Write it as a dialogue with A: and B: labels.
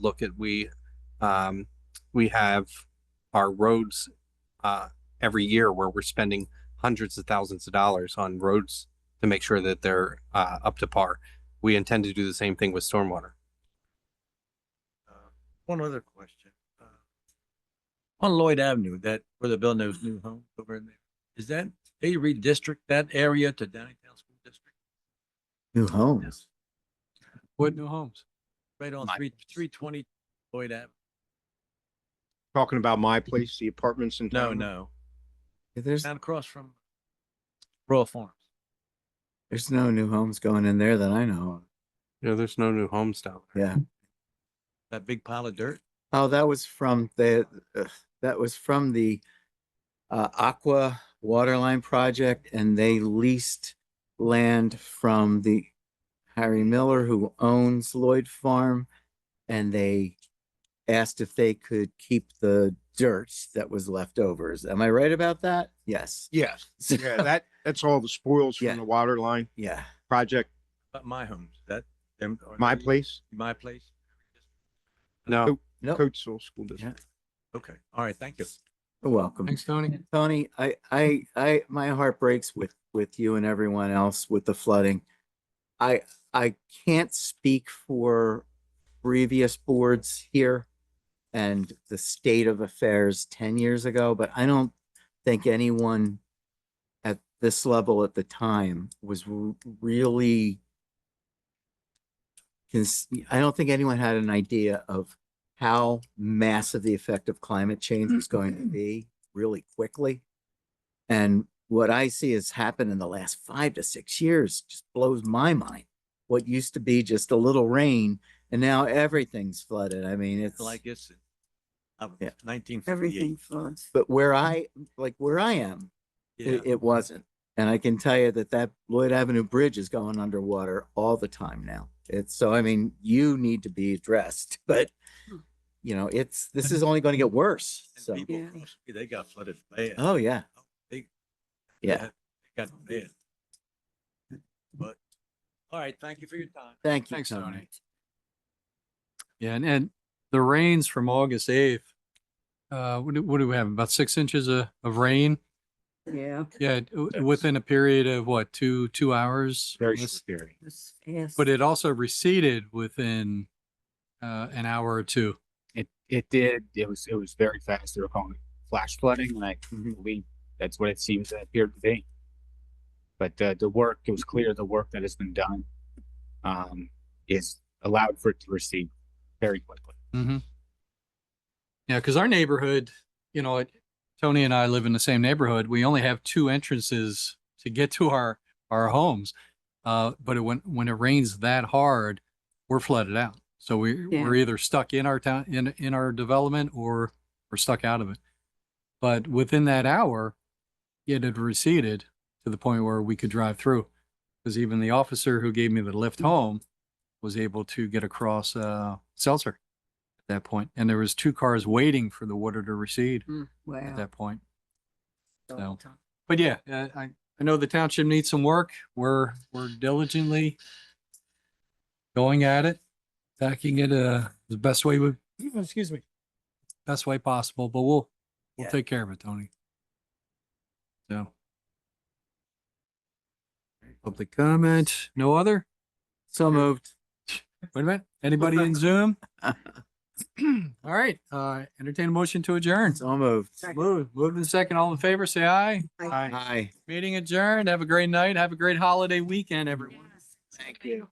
A: look at we um, we have our roads uh, every year where we're spending hundreds of thousands of dollars on roads to make sure that they're uh, up to par. We intend to do the same thing with stormwater.
B: Uh, One other question. Uh, On Lloyd Avenue, that, where they're building those new homes over in there, is that, they redistrict that area to Downingtown School District?
C: New homes.
B: What new homes? Right on
A: My
B: three, three twenty Lloyd Avenue.
D: Talking about my place, the apartments in
B: No,
D: town?
B: no,
C: Yeah, There's,
D: Um,
B: down across from Royal Farms.
C: there's no new homes going in there that I know
A: You know, there's no new homes down
C: of. Yeah.
B: That big pile of dirt.
C: Oh, that was from the, ugh, that was from the uh, Aqua Waterline Project and they leased land from the Harry Miller who owns Lloyd Farm. And they asked if they could keep the dirt that was left over. Am I right about that? Yes.
D: Yes,
C: So-
D: yeah, that, that's all the spoils
C: Yeah.
D: from the water line
C: Yeah.
D: project,
B: But my homes, that, them. are
D: my
B: they-
D: place,
B: My place.
A: there. No,
C: Nope.
D: Coatesville School District.
C: Oh. Yeah.
B: Okay, all right, thank you.
C: You're welcome. Thanks, Tony. Tony, I, I, I, my heart breaks with, with you and everyone else with the flooding. I, I can't speak for previous boards here and the state of affairs ten years ago, but I don't think anyone at this level at the time was r- really cons- I don't think anyone had an idea of how massive the effect of climate change was going to be really quickly. And what I see has happened in the last five to six years just blows my mind. What used to be just a little rain and now everything's flooded. I mean, it's
B: Like it's
C: Yeah.
B: nineteen
E: Everything
B: forty-eight.
E: floods.
C: but where I, like where I am,
B: Mm-hmm. Yeah,
C: it, it wasn't. And I can tell you that that Lloyd Avenue Bridge is going underwater all the time now. It's so, I mean, you need to be addressed, but you know, it's, this is only going to get worse.
B: Hmm. and
C: So,
B: people
E: Yeah.
B: across- They got flooded bad.
C: oh yeah.
B: They-
C: Yeah.
B: they Got bad. But, all right, thank you for your time.
C: Thank you,
F: Thanks,
C: Tony.
F: Tony. Yeah, and, and the rains from August eighth, uh, what do, what do we have? About six inches of, of rain?
E: Yeah.
F: Yeah, it- w- within a period of what, two, two hours?
D: Very
F: Less-
D: scary.
E: it's fast.
F: But it also receded within, uh, an hour or two.
G: It it did. It was it was very fast. They were calling it flash flooding, and I believe that's what it seems to appear to be. But uh, the work, it was clear the work that has been done um, is allowed for it to recede very quickly.
F: Mm-hmm. Yeah, because our neighborhood, you know, it- Tony and I live in the same neighborhood. We only have two entrances to get to our, our homes. Uh, but it- when, when it rains that hard, we're flooded out. So we,
E: Yeah.
F: we're either stuck in our town, in, in our development or we're stuck out of it. But within that hour, it had receded to the point where we could drive through. Because even the officer who gave me the lift home was able to get across, uh, Seltzer at that point, and there was two cars waiting for the water to recede
E: Mm,
F: at
E: Wow.
F: that point.
E: so
F: so-
E: tough.
F: But yeah, uh, I I know the township needs some work. We're we're diligently going at it, tacking it uh the best way we excuse me, best way possible. But we'll we'll
B: Yeah.
F: take care of it, Tony. So. Public comment, no other?
C: So moved.
F: Wait a minute, anybody in Zoom? All right, uh, entertain a motion to adjourn.
C: So moved.
F: Moved, moved in second. All in favor, say aye.
E: Aye.
C: Hi.
F: Meeting adjourned. Have a great night. Have a great holiday weekend, everyone.
E: Yes. Thank you.